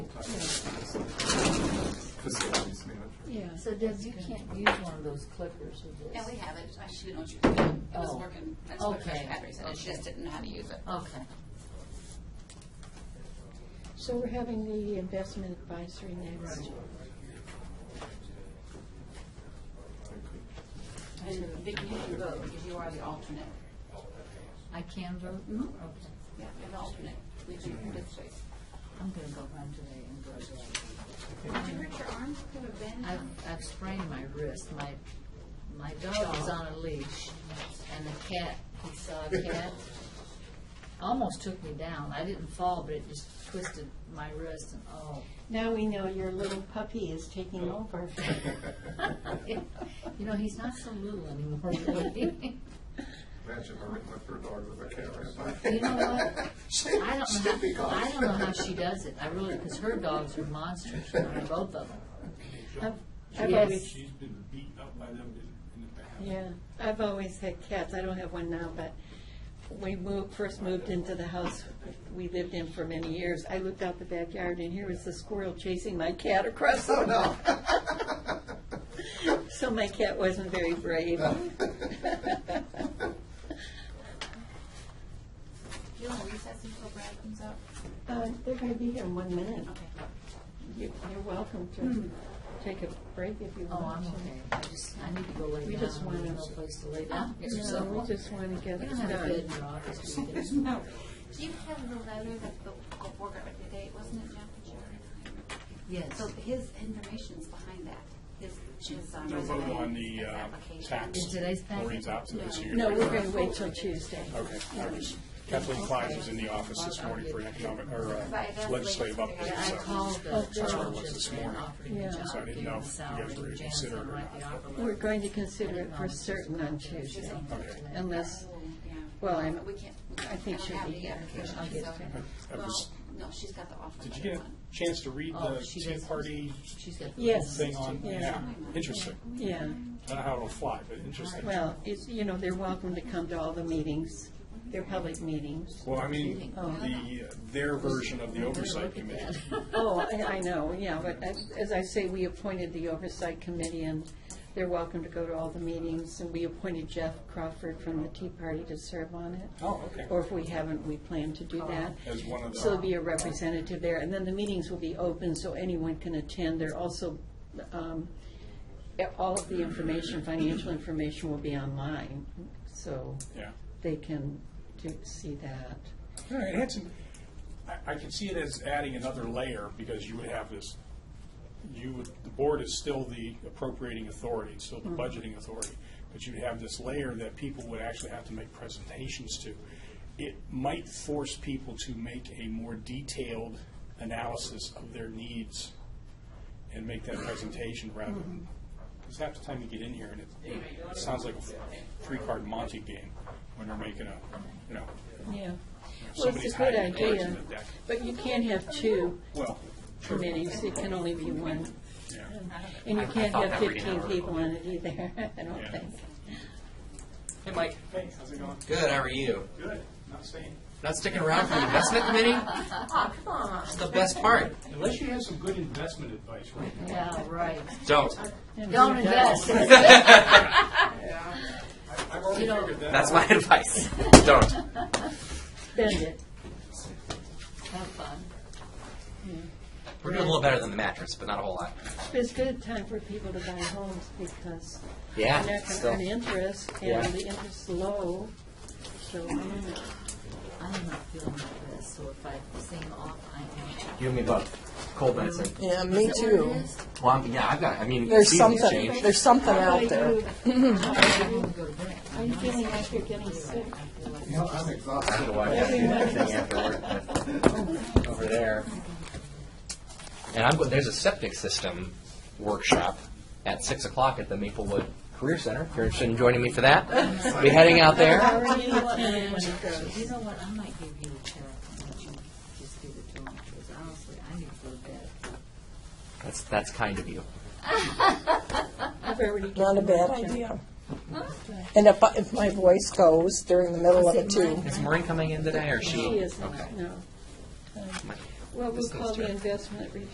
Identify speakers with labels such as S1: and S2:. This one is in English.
S1: facilities manager.
S2: Yeah.
S3: So Deb, you can't use one of those clippers with this?
S4: Yeah, we have it. I should know what you're doing. It was
S3: Oh.
S4: working. That's what
S3: Okay.
S4: Patrick said. I just didn't know how to use it.
S3: Okay.
S2: So we're having the investment advisory next.
S4: And Vicki, you can vote because you are the alternate.
S3: I can vote?
S4: Mm-hmm.
S3: Okay.
S4: Yeah, you're the alternate. We do participate.
S3: I'm gonna go home today and go to
S4: Did you hurt your arm? Could have been.
S3: I've, I've sprained my wrist. My, my dog was on a leash and the cat, he saw a cat, almost took me down. I didn't fall, but it just twisted my wrist and, oh.
S2: Now we know your little puppy is taking over.
S3: You know, he's not so little anymore. really.
S1: Imagine her with my third dog with a cat right by.
S3: You know what?
S1: She-
S3: I
S1: she'd
S3: don't
S1: be
S3: know, how-
S1: gone.
S3: I don't know how she does it. I really, because her dogs are monsters, both of them.
S2: I've- I've
S3: Yes.
S2: always,
S5: She's been beaten up by them in, in the past.
S2: yeah, I've always had cats. I don't have one now, but we moved, first moved into the house we lived in for many years. I looked out the backyard and here was the squirrel chasing my cat across the lawn. So my cat wasn't very brave.
S4: Do you want to recess until Brad comes up?
S2: Uh, They're going to be here in one minute. Hmm.
S4: Okay.
S2: You- You're welcome to take a break if you
S3: Oh, I'm
S2: want to.
S3: okay. I just, I need to go lay down.
S2: We just wanna-
S3: There's no place to lay down. It's
S2: No,
S3: simple.
S2: we just want to get
S3: We
S2: it
S3: don't have a bed in
S2: done.
S3: your office, do you?
S4: Do you have the letter that the Gulf War got today? Wasn't it Jeff? that you were-
S3: Yes,
S4: So his information's behind that. His, his. um,
S5: They'll vote
S4: resume,
S5: on the
S4: his
S5: uh,
S4: application.
S5: tax.
S3: Is today's tax?
S5: Maureen's out to this year.
S2: No, we're going to wait till Tuesday.
S5: Okay. I was- Kathleen Klein was in the office this morning for an economic, or uh, legislative update,
S3: I
S5: so.
S3: called the
S5: That's where it
S3: charge
S5: was this
S3: just and
S5: morning.
S3: offered him a
S2: Yeah.
S5: So I
S3: job,
S5: didn't
S3: gave
S5: know
S3: him
S5: if
S3: a
S5: you
S3: salary,
S5: guys were
S3: and Jan
S5: considering
S3: said,
S5: or
S3: write the offer
S2: We're
S3: letter.
S2: going to consider it for certain on Tuesday, unless,
S4: Yeah. Um,
S2: well, I'm-
S4: We can't.
S2: I think
S4: don't
S2: she'll
S4: have
S2: be
S4: the
S2: here.
S4: application,
S3: I'll get
S4: so-
S3: it.
S5: I
S4: Well,
S5: was-
S4: no, she's got the offer.
S5: Did you
S4: letter
S5: get
S4: one.
S5: a chance to read
S3: Oh,
S5: the
S3: she does.
S5: ten-party
S3: She's got. the-
S2: Yes.
S5: thing on?
S2: Yeah.
S5: Yeah, interesting.
S2: yeah.
S5: I don't know how it'll fly, but interesting.
S2: Well, it's, you know, they're welcome to come to all the meetings. They're public meetings.
S5: Well, I mean,
S2: Oh.
S5: the, their version of the oversight committee.
S2: Oh, I I know, yeah, but I- as I say, we appointed the oversight committee and they're welcome to go to all the meetings. And we appointed Jeff Crawford from the Tea Party to serve on it.
S5: Oh, okay. Oh,
S2: Or if we haven't, we plan to do that.
S5: As one of the- uh,
S2: So there'll be a representative there, and then the meetings will be open, so anyone can attend. There also, um, all of the information, financial information will be online, so
S5: Yeah.
S2: they can do, see that.
S5: All right, it had some, I, I could see it as adding another layer, because you would have this, you would, the board is still the appropriating authority, it's still the budgeting authority, but you'd have this layer that people would actually have to make presentations to. It might force people to make a more detailed analysis of their needs and make that presentation rather than, because half the time you get in here and it, it sounds like a three-card Monte game when you're making a, you know,
S2: Yeah. Well,
S5: Somebody's
S2: it's a good
S5: hiding cards in
S2: idea,
S5: the deck.
S2: but you can't have two
S5: Well,
S2: committees, it can only be one.
S5: yeah.
S2: And you can't have fifteen people on it either, I don't
S5: Yeah.
S2: think.
S6: Hey, Mike.
S5: Hey, how's it going?
S6: Good, how are you?
S5: Good, not staying.
S6: Not sticking around for the investment committee? It's the best part.
S5: Unless you have some good investment advice right now.
S3: Yeah, right.
S6: Don't.
S2: And
S3: Don't
S2: who does?
S3: invest.
S5: I've already
S3: know,
S5: figured that.
S6: That's my advice. Don't.
S2: Spend it.
S3: Have fun.
S6: We're doing a little better than the mattress, but not a whole lot.
S2: It's good time for people to buy homes because
S6: Yeah,
S2: they're not going to
S6: still.
S2: earn interest
S6: Yeah.
S2: and the interest's low, so. mm.
S3: I am not feeling my best, so if I seem off, I am.
S6: You and me both. Cold medicine.
S7: Yeah, me too.
S6: Well, I'm, yeah, I've got, I mean,
S7: There's
S6: seasons
S7: something,
S6: change.
S7: there's something
S2: How about
S7: out there.
S2: you?
S3: I want to go to bed.
S2: How are you feeling after getting sick?
S1: You know, I'm
S6: I
S1: exhausted.
S6: gotta watch that thing after work, but over there. And I'm, go- there's a septic system workshop at six o'clock at the Maplewood Career Center. If you're interested in joining me for that, be heading out there.
S2: How are you feeling when it goes?
S3: You know what, I might give you a check, and let you just give it to him, because honestly, I need to go to bed.
S6: That's, that's kind of you.
S2: I've already given
S7: Not a bad
S2: mine, Jack.
S7: idea. And if, I- if my voice goes during the middle of it too,
S6: Is Maureen coming in today, or
S2: She isn't, no.
S6: My-
S2: Well, we'll
S6: This goes
S2: call the
S6: to-
S2: investment review